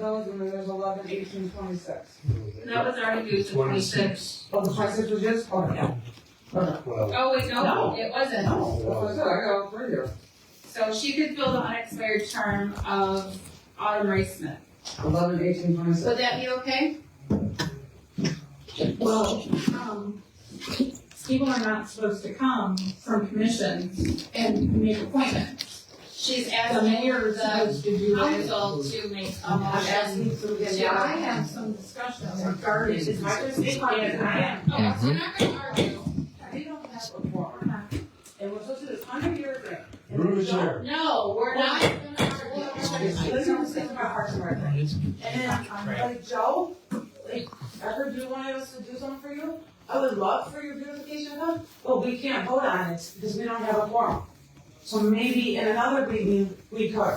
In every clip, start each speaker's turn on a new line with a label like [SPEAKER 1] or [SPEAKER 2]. [SPEAKER 1] Those and then there's eleven, eighteen, twenty-six.
[SPEAKER 2] That was already due to twenty-six.
[SPEAKER 1] Oh, the twenty-six was just, oh, no. Oh, no.
[SPEAKER 3] Well,
[SPEAKER 2] Oh, wait, no,
[SPEAKER 1] No.
[SPEAKER 2] it wasn't.
[SPEAKER 1] No, that's what I said, I got all three here.
[SPEAKER 2] So she could fill the unexpired term of Autumn Ray Smith.
[SPEAKER 1] Eleven, eighteen, twenty-six.
[SPEAKER 2] Would that be okay?
[SPEAKER 4] Well, um, people are not supposed to come from commissions and make appointments.
[SPEAKER 2] She's
[SPEAKER 4] The
[SPEAKER 2] asking
[SPEAKER 4] mayor is
[SPEAKER 2] the
[SPEAKER 4] supposed to do that.
[SPEAKER 2] council to make a
[SPEAKER 4] I'm
[SPEAKER 2] motion.
[SPEAKER 4] asking for this.
[SPEAKER 2] Yeah.
[SPEAKER 4] I have some discussion regarding.
[SPEAKER 1] It's my first big one, and I am-
[SPEAKER 2] Oh, so we're not gonna argue.
[SPEAKER 1] I don't have a form. It was listed as under your grant.
[SPEAKER 3] Bruce Chair.
[SPEAKER 2] No, we're not gonna argue.
[SPEAKER 1] Let's not think about Parks and Rec. And then, um, like Joe, like, ever do want us to do something for you? I would love for your beautification hub, but we can't vote on it because we don't have a forum. So maybe in another meeting, we could.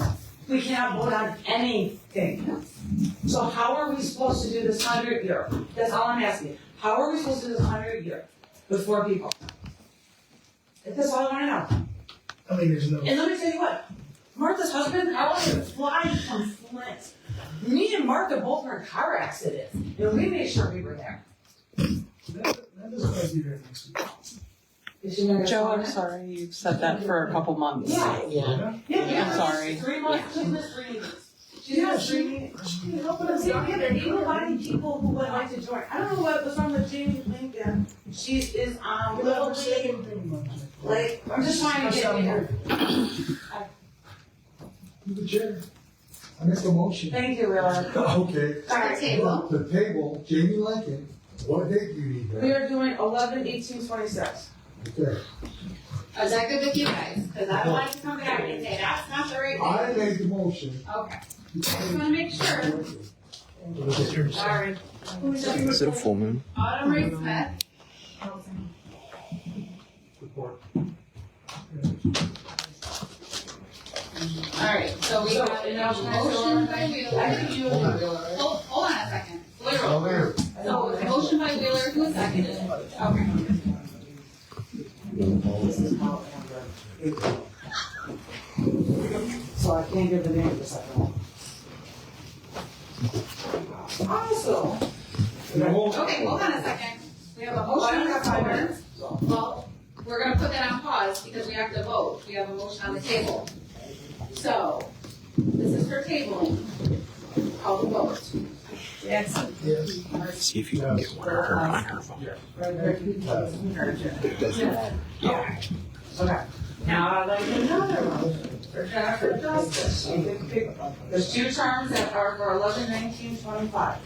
[SPEAKER 1] We cannot vote on anything. So how are we supposed to do this hundred year? That's all I'm asking. How are we supposed to do this hundred year with four people? That's all I wanna know.
[SPEAKER 5] I mean, there's no.
[SPEAKER 1] And let me tell you what, Martha's husband, I wanted to fly from Flint. Me and Martha both were in car accidents, and we made sure we were there.
[SPEAKER 5] That, that doesn't have to be very next week.
[SPEAKER 1] Did you know
[SPEAKER 6] Joe, I'm sorry you've said that for a couple months.
[SPEAKER 1] Yeah,
[SPEAKER 5] Yeah.
[SPEAKER 1] yeah, yeah.
[SPEAKER 6] I'm sorry.
[SPEAKER 1] Three months, she's missed three meetings. She's
[SPEAKER 5] Yeah,
[SPEAKER 1] missed three
[SPEAKER 5] she-
[SPEAKER 1] meetings. But see, yeah, there even a lot of people who would like to join. I don't know what was wrong with Jamie Lincoln. uh, She is on Little League, like, I'm just trying to get here.
[SPEAKER 5] The chair. I make a motion.
[SPEAKER 1] Thank you, Leila.
[SPEAKER 5] Okay.
[SPEAKER 2] Our table.
[SPEAKER 5] The table, Jamie Lincoln, what date you need
[SPEAKER 1] We
[SPEAKER 5] that?
[SPEAKER 1] are doing eleven, eighteen, twenty-six.
[SPEAKER 5] Okay.
[SPEAKER 2] Is that good with you guys? Cause I don't want to come back and say that's not the right
[SPEAKER 5] I made the motion.
[SPEAKER 2] thing. Okay, just wanna make sure. Sorry.
[SPEAKER 7] Is it a full moon?
[SPEAKER 2] Autumn Ray Smith. Alright, so we have enough motion by Wheeler. Hold, hold on a second, literal.
[SPEAKER 5] there.
[SPEAKER 2] So it was a motion by Wheeler, who seconded it? Okay.
[SPEAKER 1] So I can't give the name of the second one. Awesome.
[SPEAKER 2] Okay, hold on a second. We have a motion on the floor. Well, we're gonna put that on pause because we have to vote. We have a motion on the table. So, this is for tabling. Call the vote.
[SPEAKER 1] Jackson.
[SPEAKER 5] Yes.
[SPEAKER 7] See if you can get one of her on her phone. It doesn't.
[SPEAKER 1] Okay. Now I'd like another one for Jennifer Justice. She did pick, there's two terms that are for eleven nineteen twenty-five.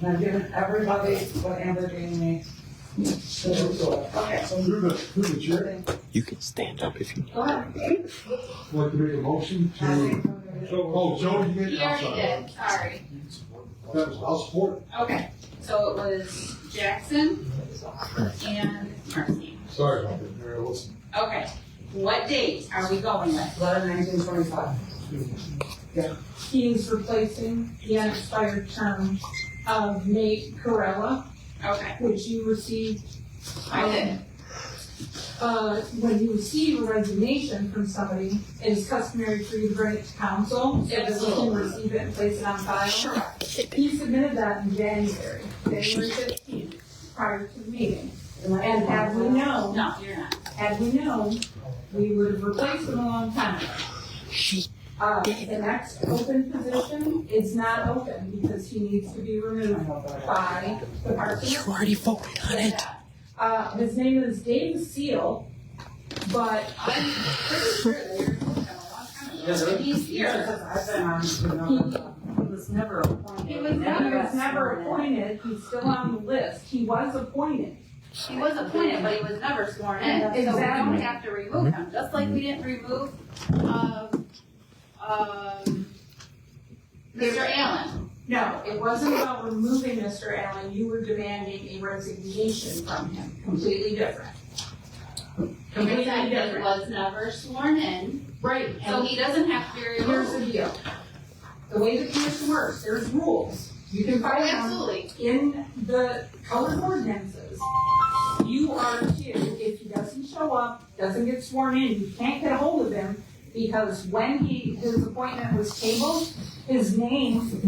[SPEAKER 1] And I've given everybody what Amber gave me. Okay.
[SPEAKER 5] Through the, through the chair,
[SPEAKER 7] You can stand up if you.
[SPEAKER 1] Go ahead.
[SPEAKER 5] I'd like to make a motion
[SPEAKER 1] I
[SPEAKER 5] to.
[SPEAKER 1] think I'm gonna-
[SPEAKER 5] Oh, Joe, you made
[SPEAKER 2] He
[SPEAKER 5] it, I'm
[SPEAKER 2] already
[SPEAKER 5] sorry.
[SPEAKER 2] did, sorry.
[SPEAKER 5] That was, I'll support it.
[SPEAKER 2] Okay, so it was Jackson and Marcy.
[SPEAKER 5] Sorry about that, Mary, listen.
[SPEAKER 2] Okay, what date are we going with?
[SPEAKER 1] Eleven nineteen twenty-five.
[SPEAKER 4] He is replacing the unexpired term of Nate Corella,
[SPEAKER 2] Okay,
[SPEAKER 4] which you received,
[SPEAKER 2] I did.
[SPEAKER 4] uh, when you receive a resignation from somebody, it is customary for you to bring it to council. So that we can
[SPEAKER 2] Absolutely.
[SPEAKER 4] receive it and place it on file. He submitted that in January, January fifteenth, prior to the meeting. And had we known,
[SPEAKER 2] No, you're not.
[SPEAKER 4] had we known, we would have replaced him a long time ago. Uh, the next open position is not open because he needs to be removed by the party.
[SPEAKER 7] already voted on
[SPEAKER 4] Uh, his name is Dave Seal, but
[SPEAKER 2] I'm pretty sure that you're going a long time ago.
[SPEAKER 5] Yes, sir.
[SPEAKER 2] He's here.
[SPEAKER 1] I've been on to
[SPEAKER 4] he,
[SPEAKER 1] another.
[SPEAKER 4] he was never, he was never appointed, he's still on the list, he was appointed.
[SPEAKER 2] He was appointed, but he was never sworn in, so we don't
[SPEAKER 4] Exactly.
[SPEAKER 2] have to remove him, just like we didn't remove, um, um, Mr. Allen.
[SPEAKER 4] No, it wasn't about removing Mr. Allen, you were demanding a resignation from him, completely different. Completely
[SPEAKER 2] He
[SPEAKER 4] different.
[SPEAKER 2] was never sworn in,
[SPEAKER 4] Right,
[SPEAKER 2] so
[SPEAKER 4] and
[SPEAKER 2] he doesn't have to be
[SPEAKER 4] here's
[SPEAKER 2] removed. Oh,
[SPEAKER 4] the deal. The way the commission works, there's rules, you can find them.
[SPEAKER 2] Absolutely.
[SPEAKER 4] in the code of ordinances, you are to, if he doesn't show up, doesn't get sworn in, you can't get a hold of him, because when he, his appointment was tabled, his name